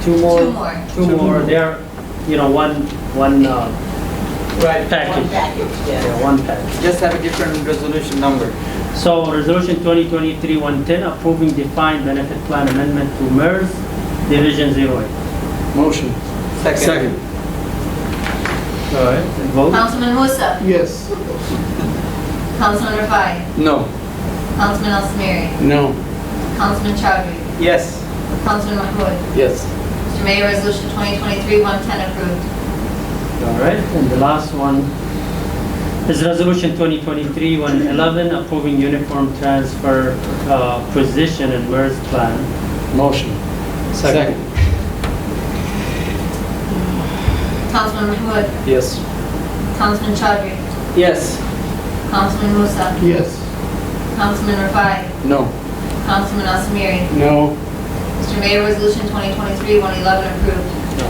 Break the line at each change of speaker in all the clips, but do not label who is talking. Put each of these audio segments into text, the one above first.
Two more?
Two more.
Two more, they're, you know, one, one uh,
Right,
One
package,
package, yeah.
yeah, one package.
just have a different resolution number.
So resolution 2023-110 approving defined benefit plan amendment to MERS Division 08.
Motion.
Second.
All right. Vote?
Councilman Musa,
Yes.
Councilman Rafai,
No.
Councilman Al Samiri,
No.
Councilman Chowdhury,
Yes.
Councilman Mahmoud.
Yes.
Mr. Mayor, Resolution 2023-110 approved.
All right, and the last one is resolution 2023-111 approving uniform transfer uh, position in MERS plan.
Motion.
Second.
Councilman Mahmoud,
Yes.
Councilman Chowdhury,
Yes.
Councilman Musa,
Yes.
Councilman Rafai,
No.
Councilman Al Samiri.
No.
Mr. Mayor, Resolution 2023-111 approved.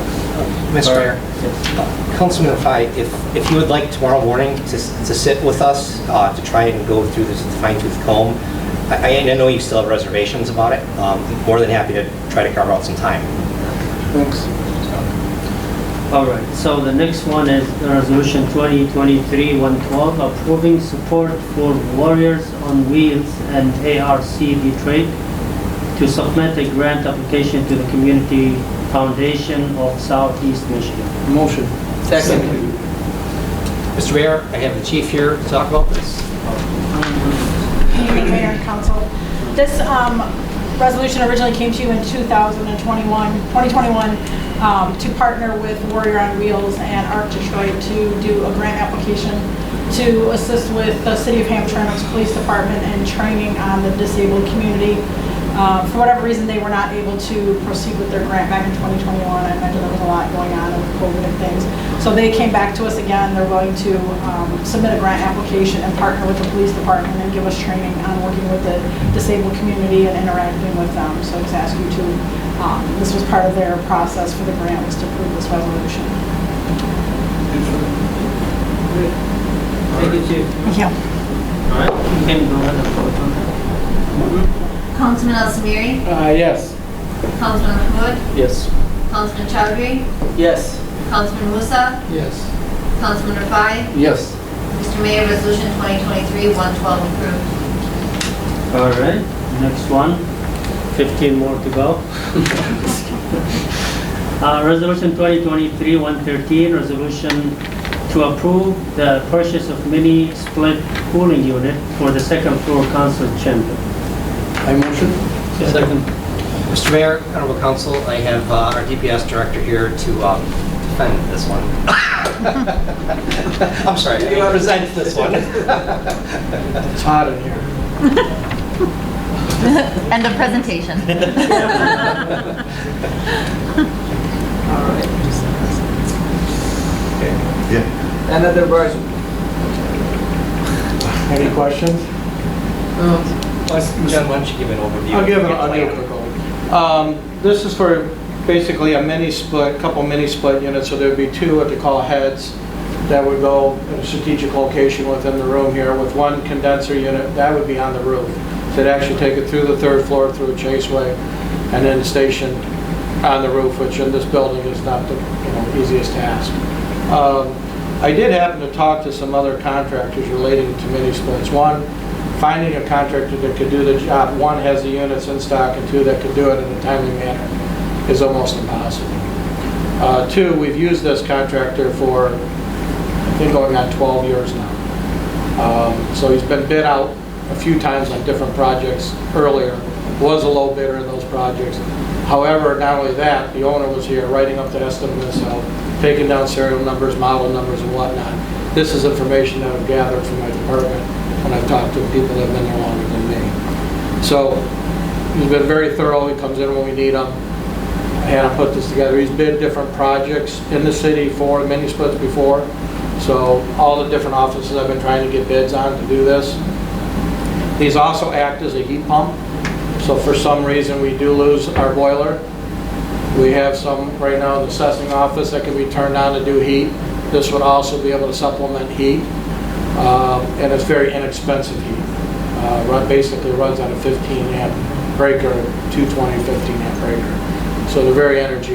Mr. Mayor,
Yes.
Councilman Fai, if, if you would like tomorrow morning to, s- to sit with us, uh, to try and go through this fine tooth comb, I, I know you still have reservations about it, um, more than happy to try to carve out some time.
Thanks.
All right, so the next one is resolution 2023-112 approving support for Warriors on Wheels and ARC Detroit to submit a grant application to the Community Foundation of Southeast Michigan.
Motion.
Second.
Mr. Mayor, I have the chief here to talk about this.
Mayor and Council. This um, resolution originally came to you in 2021, 2021, um, to partner with Warrior on Wheels and Arc Detroit to do a grant application to assist with the City of Hamtramck's Police Department and training on the disabled community. Uh, For whatever reason, they were not able to proceed with their grant back in 2021. I imagine there was a lot going on with COVID and things. So they came back to us again, they're willing to um, submit a grant application and partner with the police department and give us training on working with the disabled community and interacting with them. So just ask you to, um, this was part of their process for the grant, was to approve this resolution.
Thank you, Chief.
Yeah.
All right, you can go ahead and vote on that.
Councilman Al Samiri,
Uh, yes.
Councilman Mahmoud,
Yes.
Councilman Chowdhury,
Yes.
Councilman Musa,
Yes.
Councilman Rafai.
Yes.
Mr. Mayor, Resolution 2023-112 approved.
All right, next one. 15 more to go. Uh, Resolution 2023-113, resolution to approve the purchase of mini split cooling unit for the second floor council chamber.
I motion.
Second. Mr. Mayor, Honorable Council, I have uh, our DPS Director here to um, defend this one. I'm sorry, I represent this one.
It's hot in here.
End of presentation.
Another version.
Any questions?
John, why don't you give an overview?
I'll give it,
Your
I'll give
plan.
it a go. Um, This is for basically a mini split, couple mini split units, so there'd be two what they call heads that would go in a strategic location within the room here with one condenser unit, that would be on the roof. So it'd actually take it through the third floor, through a chaseway, and then stationed on the roof, which in this building is not the, you know, easiest task. Um, I did happen to talk to some other contractors relating to mini splits. One, finding a contractor that could do the job, one, has the units in stock, and two, that could do it in a timely manner, is almost impossible. Uh, Two, we've used this contractor for, I think, going on 12 years now. Um, So he's been bid out a few times on different projects earlier, was a low bidder in those projects. However, not only that, the owner was here writing up the estimates, so taking down serial numbers, model numbers and whatnot. This is information that I've gathered from my department when I've talked to people that have been there longer than me. So he's been very thorough, he comes in when we need him, and I put this together. He's bid different projects in the city for mini splits before, so all the different offices I've been trying to get bids on to do this. These also act as a heat pump, so if for some reason we do lose our boiler. We have some right now in the assessing office that can be turned on to do heat. This would also be able to supplement heat, um, and it's very inexpensive heat. Uh, run- Basically runs on a 15 amp breaker, 220 15 amp breaker. So they're very energy